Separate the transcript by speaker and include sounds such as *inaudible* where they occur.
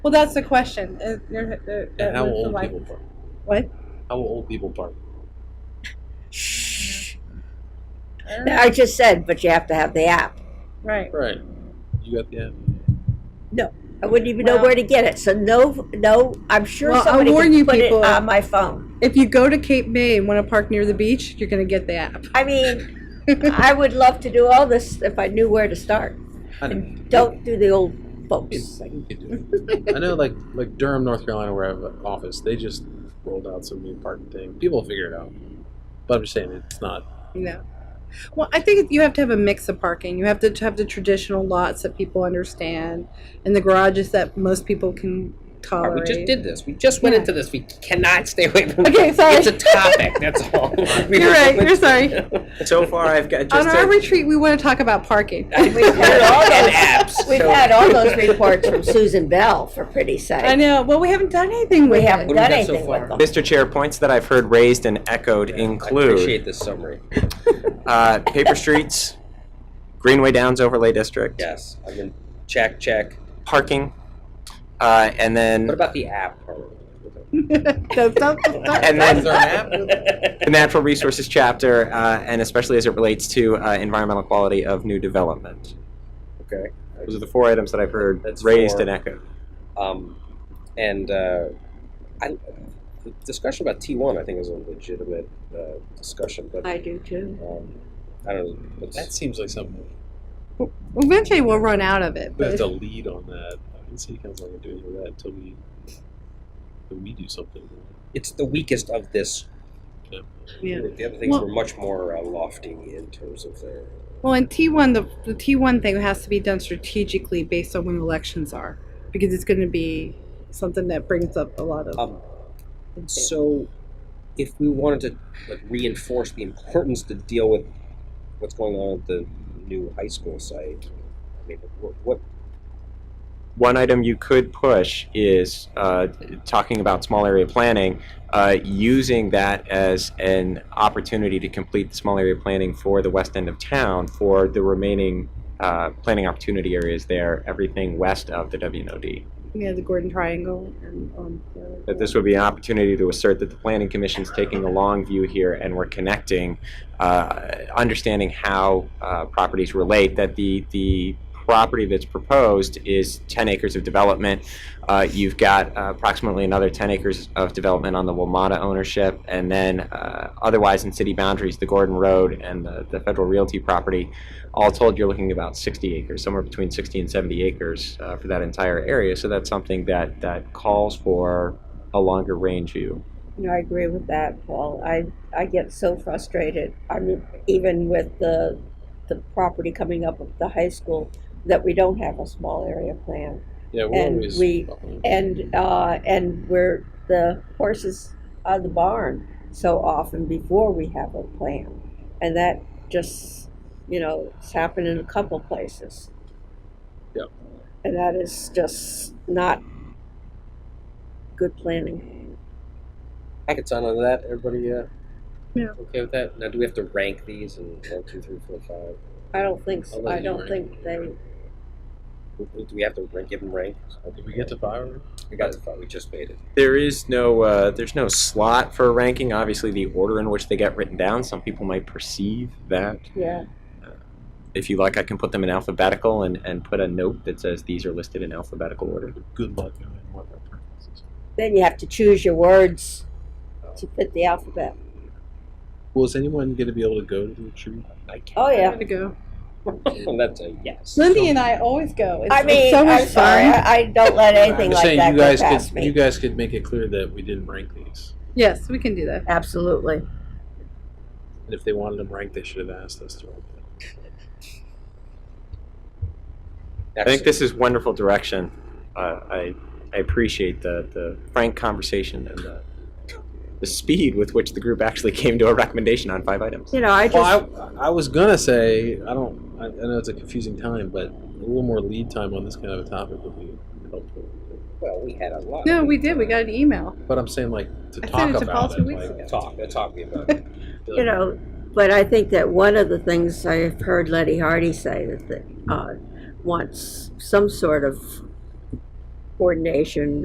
Speaker 1: Well, that's the question. Uh, there- there-
Speaker 2: And
Speaker 1: that
Speaker 2: how
Speaker 1: was
Speaker 2: will
Speaker 1: the
Speaker 2: old
Speaker 1: life-
Speaker 2: people park?
Speaker 1: What?
Speaker 2: How will old people park?
Speaker 1: I don't know.
Speaker 3: I just said, but you have to have the app.
Speaker 1: Right.
Speaker 2: Right. You got the app.
Speaker 3: I wouldn't even know where to get it. So no, no, I'm sure
Speaker 1: Well, I'll
Speaker 3: somebody
Speaker 1: warn
Speaker 3: can
Speaker 1: you
Speaker 3: put
Speaker 1: people.
Speaker 3: it on my phone.
Speaker 1: If you go to Cape May and want to park near the beach, you're going to get the app. *laughs*
Speaker 3: I mean, I would love to do all this if I knew where to start.
Speaker 2: I know. *laughs*
Speaker 3: And don't do the old folks.
Speaker 2: It's- you could do it. I know, like like Durham, North Carolina, where I have an office, they just rolled out some new parking thing. People will figure it out. But I'm just saying, it's not.
Speaker 1: No. Well, I think you have to have a mix of parking. You have to have the traditional lots that people understand, and the garages that most people can
Speaker 4: Alright,
Speaker 1: tolerate.
Speaker 4: Uh, we just did this. We just went
Speaker 1: Yeah.
Speaker 4: into this. We cannot stay away from
Speaker 1: Okay, sorry.
Speaker 4: It's a topic.
Speaker 1: *laughs*
Speaker 4: That's all. We
Speaker 1: You're
Speaker 4: were-
Speaker 1: right, you're sorry.
Speaker 5: So far, I've got just
Speaker 1: On our
Speaker 5: a-
Speaker 1: retreat, we want to talk about parking.
Speaker 3: We've had all
Speaker 4: and
Speaker 3: those, *laughs*
Speaker 4: apps.
Speaker 3: we've
Speaker 4: so-
Speaker 3: had all those reports from Susan Bell, for
Speaker 1: *laughs*
Speaker 3: pretty
Speaker 1: I
Speaker 3: sight.
Speaker 1: know. Well, we haven't done anything with
Speaker 3: We
Speaker 1: it.
Speaker 3: haven't
Speaker 4: What have we
Speaker 3: done
Speaker 4: done so
Speaker 3: anything
Speaker 4: far?
Speaker 3: with them.
Speaker 5: Mr. Chair, points that I've heard raised and echoed
Speaker 4: I
Speaker 5: include
Speaker 4: appreciate this summary.
Speaker 5: uh, paper streets, Greenway Downs overlay district,
Speaker 4: Yes. I mean, check, check.
Speaker 5: parking, uh, and then
Speaker 4: What about the app? part?
Speaker 1: Don't- don't- don't- don't-
Speaker 5: and
Speaker 2: Is there
Speaker 5: then
Speaker 2: an app?
Speaker 5: the natural resources chapter, uh, and especially as it relates to uh, environmental quality of new development.
Speaker 4: Okay.
Speaker 5: Those are the four items that I've heard
Speaker 4: That's
Speaker 5: raised
Speaker 4: four.
Speaker 5: and echoed.
Speaker 4: *laughs* Um, and uh, I, the discussion about T1, I think, is a legitimate uh, discussion, but
Speaker 3: I do too.
Speaker 4: um, I don't know. Let's,
Speaker 2: That seems like something
Speaker 1: Eventually, we'll run out of it.
Speaker 2: we
Speaker 1: But *laughs*
Speaker 2: have to lead on that. I think city council can do anything with that until we until we do something.
Speaker 4: it's the weakest of this.
Speaker 1: Yeah.
Speaker 4: The other things
Speaker 1: Well-
Speaker 4: were much more uh, lofty in terms of their.
Speaker 1: well, in T1, the, the T1 thing has to be done strategically based on when elections are, because it's going to be something that brings up a lot of.
Speaker 4: Um, So, if we wanted to like, reinforce the importance to deal with what's going on at the new high school site, I mean, what, what
Speaker 5: one item you could push is uh, talking about small area planning, uh, using that as an opportunity to complete the small area planning for the west end of town for the remaining uh, planning opportunity areas there, everything west of the WNOD.
Speaker 1: yeah, the Gordon Triangle. And, um, the other-
Speaker 5: That this would be an opportunity to assert that the planning commission is taking a long view here and we're connecting, uh, understanding how uh, properties relate, that the, the property that's proposed is 10 acres of development. Uh, You've got uh, approximately another 10 acres of development on the Wilmata ownership, and then uh, otherwise in city boundaries, the Gordon Road and the the Federal Realty property. All told, you're looking at about 60 acres, somewhere between 60 and 70 acres uh, for that entire area. So that's something that, that calls for a longer range view.
Speaker 3: No, I agree with that, Paul. I, I get so frustrated. I mean, even with the, the property coming up at the high school, that we don't have a small area plan.
Speaker 2: Yeah, we're
Speaker 3: And
Speaker 2: always.
Speaker 3: we- And, uh, and we're, the horses are the barn so often before we have a plan. And that just, you know, it's happened in a couple places.
Speaker 2: Yep.
Speaker 3: And that is just not good planning.
Speaker 4: I could sign on to that. Everybody, uh,
Speaker 1: Yeah.
Speaker 4: okay with that? Now, do we have to rank these in one, two, three, four, five?
Speaker 3: I don't think,
Speaker 2: I'll
Speaker 3: so.
Speaker 2: let
Speaker 3: I
Speaker 2: you rank.
Speaker 3: don't think they
Speaker 4: Do we have to rank, give them rank?
Speaker 2: Did we get to fire?
Speaker 4: We got it. We just made it.
Speaker 5: There is no uh, there's no slot for ranking. Obviously, the order in which they get written down. Some people might perceive that.
Speaker 3: Yeah,
Speaker 5: If you like, I can put them in alphabetical and, and put a note that says these are listed in alphabetical order.
Speaker 2: Good luck knowing what our purpose is.
Speaker 3: then you have to choose your words to fit the alphabet.
Speaker 2: Well, is anyone going to be able to go to the retreat?
Speaker 1: *laughs*
Speaker 2: I can't.
Speaker 3: Oh
Speaker 1: I'm
Speaker 3: yeah,
Speaker 1: gonna go. Oh.
Speaker 4: And that's a yes.
Speaker 1: Lindy and I always go. It's,
Speaker 3: I mean,
Speaker 1: it's so much
Speaker 3: I'm sorry,
Speaker 1: fun.
Speaker 3: I, I don't let
Speaker 2: I'm
Speaker 3: anything
Speaker 2: just
Speaker 3: like
Speaker 2: saying,
Speaker 3: that
Speaker 2: you guys
Speaker 3: go past
Speaker 2: could
Speaker 3: me.
Speaker 2: you guys could make it clear that we didn't rank these,
Speaker 1: Yes, we can do that.
Speaker 3: Absolutely.
Speaker 2: and if they wanted them ranked, they should have asked us to. Rank them.
Speaker 5: I think this is wonderful direction. Uh, I I appreciate the, the frank conversation and the the speed with which the group actually *laughs* came to a recommendation on five items.
Speaker 3: You know, I just
Speaker 2: Well, I, I was gonna say I don't. I, I know it's a confusing time, but a little more lead time on this kind of a topic would be helpful.
Speaker 4: Well, we had a lot.
Speaker 1: No, we did. We got an email.
Speaker 2: But I'm saying like to
Speaker 1: I
Speaker 2: talk
Speaker 1: sent it to Paul
Speaker 2: about
Speaker 1: two
Speaker 2: it.
Speaker 1: weeks
Speaker 2: like,
Speaker 1: ago.
Speaker 4: Talk. That's talking about. it.
Speaker 2: to-
Speaker 3: you know, but I think that one of the things I've heard Letty Hardy say that they uh, wants some sort of coordination